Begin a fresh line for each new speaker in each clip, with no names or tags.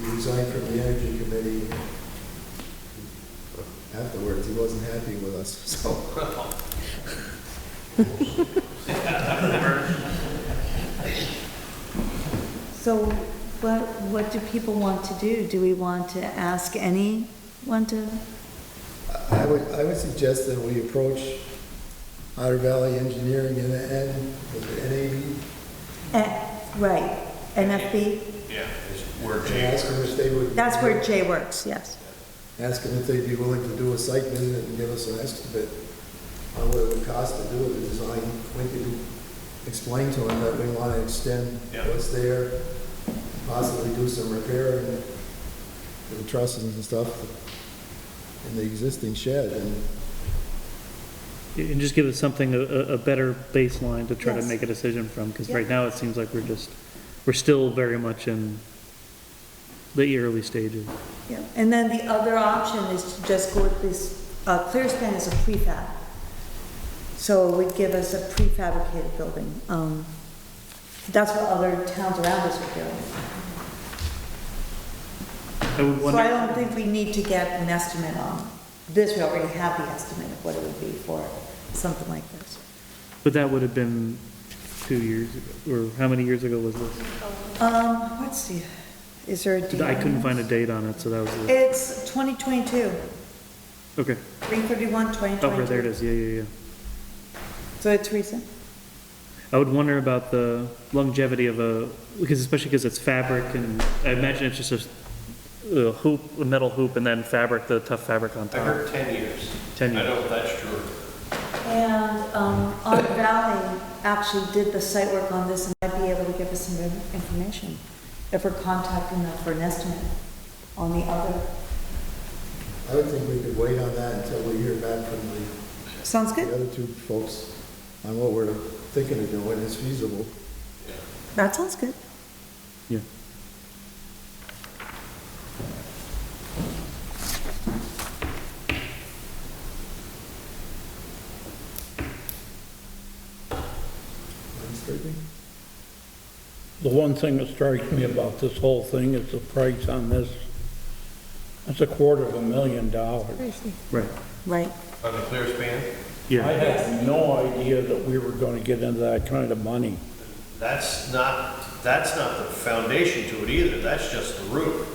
He resigned from the energy committee. Afterwards, he wasn't happy with us, so.
So what, what do people want to do? Do we want to ask anyone to?
I would, I would suggest that we approach Otter Valley Engineering and, and with the
eh, Right, NFB?
Yeah, it's where
NAB, and
Jay
ask them if they would.
That's where Jay works, yes.
Ask them if they'd be willing to do a site visit and give us an estimate on what it would cost to do the design. We could explain to them that we want to extend
Yeah.
what's there, possibly do some repair and the trusses and stuff in the existing shed, and
And just give us something, a, a a better baseline to try to
Yes.
make a decision from, because
Yeah.
right now it seems like we're just, we're still very much in the early stages.
Yeah. And then the other option is to just go with this, uh, Clearspan is a prefab. So it would give us a prefabricated building. Um, That's what other towns around us are doing.
I would
So
wonder,
I don't think we need to get an estimate on this, we already have the estimate of what it would be for something like this.
but that would have been two years, ago, or how many years ago was this?
Um, let's see, is there a date?
I
on
couldn't
this?
find a date on it, so that was, the-
It's 2022,
okay,
331, 2022.
over Oh, there it is, yeah, yeah, yeah.
So it's recent?
I would wonder about the longevity of a, because especially because it's fabric and I imagine it's just a, a hoop, a metal hoop and then fabric, the tough fabric on
I
top.
heard ten years.
Ten
I
years.
don't know if that's true.
And, um, Otter Valley actually did the site work on this and might be able to give us some in- information if we're contacting them for an estimate on the other.
I would think we could wait on that until we hear back from the
Sounds
the
good,
other two folks on what we're thinking of doing is feasible.
that sounds good.
Yeah.
I'm striking.
The one thing that strikes me about this whole thing is the price on this. It's a quarter of a million dollars.
Right.
Right,
On the clear span,
Yeah.
I had no idea that we were gonna get into that kind of money.
that's not, that's not the foundation to it either. That's just the roof.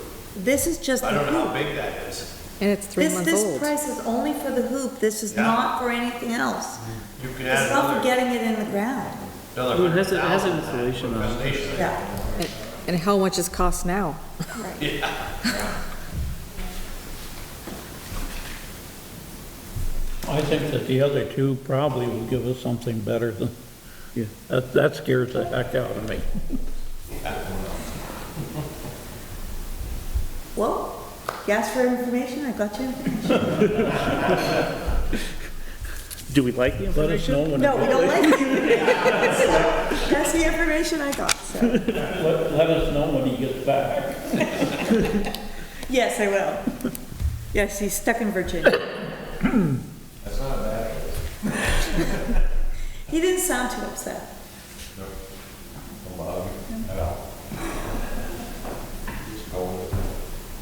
this is just the
I don't know how
hoop.
big that is.
And it's three
This,
months
this
old.
price is only for the hoop, this is
Yeah.
not for anything else.
You can add
It's not for
another,
getting it in the ground,
another
Well, it
hundred
has a- it has an
thousand.
installation on it.
Foundation.
yeah.
And- And how much it costs now?
I think that the other two probably will give us something better than,
Yeah.
that, that scares the heck out of me.
Well, you asked for information, I got you.
Do we like the
Let us know
information?
when,
No, we
it-
don't like it. So, That's the information I got, so,
let, let us know when he gets back.
yes, I will. Yes, he's stuck in Virginia.
That's not a bad.
He didn't sound too upset.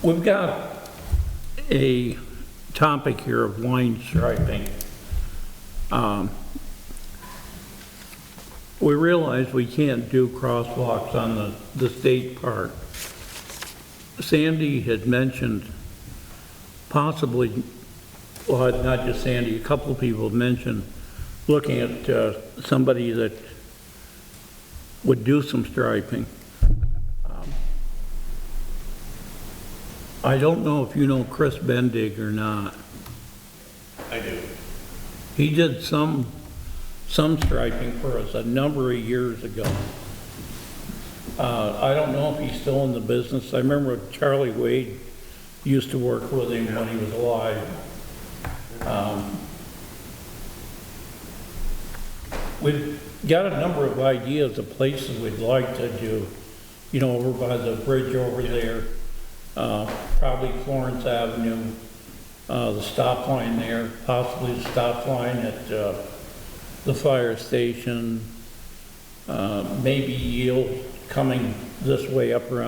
We've got a topic here of line striping. Um, We realize we can't do crosswalks on the, the state park. Sandy had mentioned possibly, well, not just Sandy, a couple of people mentioned looking at uh, somebody that would do some striping. I don't know if you know Chris Bendig or not.
I do.
He did some, some striping for us a number of years ago. Uh, I don't know if he's still in the business. I remember Charlie Wade used to work with him when he was alive. Um, We've got a number of ideas of places we'd like to do, you know, over by the bridge over there, uh, probably Florence Avenue uh, the stop line there, possibly the stop line at uh, the fire station, uh, maybe yield coming this way up around